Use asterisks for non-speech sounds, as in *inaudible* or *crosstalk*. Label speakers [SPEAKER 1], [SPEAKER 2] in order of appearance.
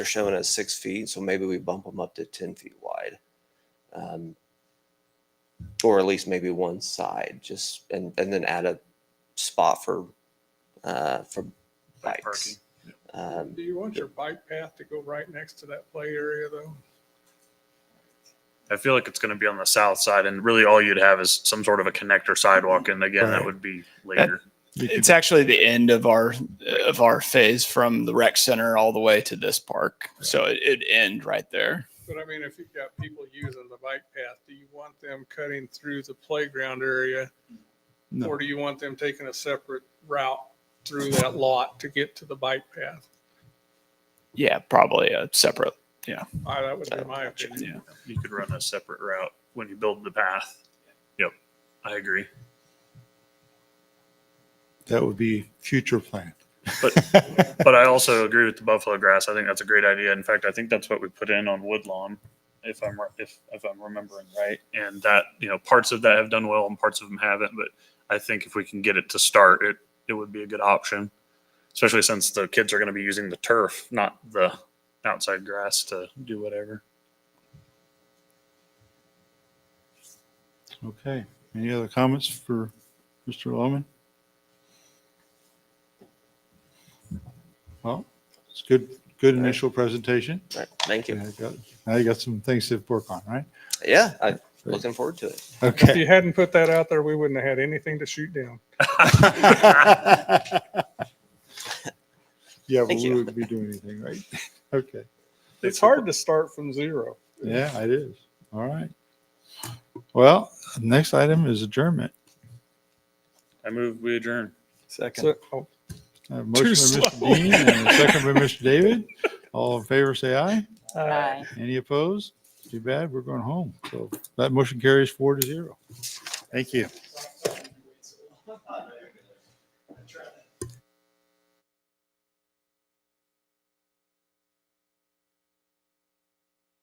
[SPEAKER 1] They're showing at six feet, so maybe we bump them up to ten feet wide. Um, Or at least maybe one side, just, and, and then add a spot for, uh, for
[SPEAKER 2] Like
[SPEAKER 1] bikes. Um,
[SPEAKER 3] Do you want your bike path to go right next to that play area though?
[SPEAKER 2] I feel like it's going to be on the south side, and really all you'd have is some sort of a connector sidewalk, and again, that
[SPEAKER 4] Right.
[SPEAKER 2] would be later.
[SPEAKER 4] It's actually the end of our of our phase from the rec center all the way to this park. So it, it'd end right there.
[SPEAKER 3] But I mean, if you've got people using the bike path, do you want them cutting through the playground area?
[SPEAKER 5] No.
[SPEAKER 3] Or do you want them taking a separate route through that lot to get to the bike path?
[SPEAKER 4] Yeah, probably a separate.
[SPEAKER 3] I, that would be my opinion.
[SPEAKER 4] Yeah.
[SPEAKER 2] You could run a separate route when you build the path. Yep, I agree.
[SPEAKER 5] That would be future plan.
[SPEAKER 2] But I also agree with the buffalo grass. I think that's a great idea. In fact, I think that's what we put in on Woodlawn, if I'm ri- if if I'm remembering right. And that you know parts of that have done well and parts of them haven't. But I think if we can get it to start, it it would be a good option, especially since the kids are going to be using the turf, not the outside grass to do whatever.
[SPEAKER 5] *laughs* Okay. Any other comments for Mr. Loman? Well, it's good, good
[SPEAKER 1] All right.
[SPEAKER 5] initial presentation.
[SPEAKER 1] right, Thank you.
[SPEAKER 5] Now you got- now you got some things to work on, right?
[SPEAKER 1] Yeah, I'm looking forward to it.
[SPEAKER 3] If
[SPEAKER 5] Okay.
[SPEAKER 3] you hadn't put that out there, we wouldn't have had anything to shoot down.
[SPEAKER 5] *laughs* Yeah, but
[SPEAKER 1] Thank
[SPEAKER 5] we
[SPEAKER 1] you.
[SPEAKER 5] wouldn't be doing anything, right? Okay.
[SPEAKER 3] It's hard to start from zero.
[SPEAKER 5] Yeah, it is. All right. Well, next item is adjournment.
[SPEAKER 2] I move we adjourn.
[SPEAKER 3] So- oh,
[SPEAKER 5] I have a Uh, Motion by Mr.
[SPEAKER 3] slow.
[SPEAKER 5] Dean and a second by Mr. David. All in favor, say aye.
[SPEAKER 3] uh,
[SPEAKER 6] Aye.
[SPEAKER 5] Any opposed? Too bad, we're going home. So that motion carries four to zero. Thank you.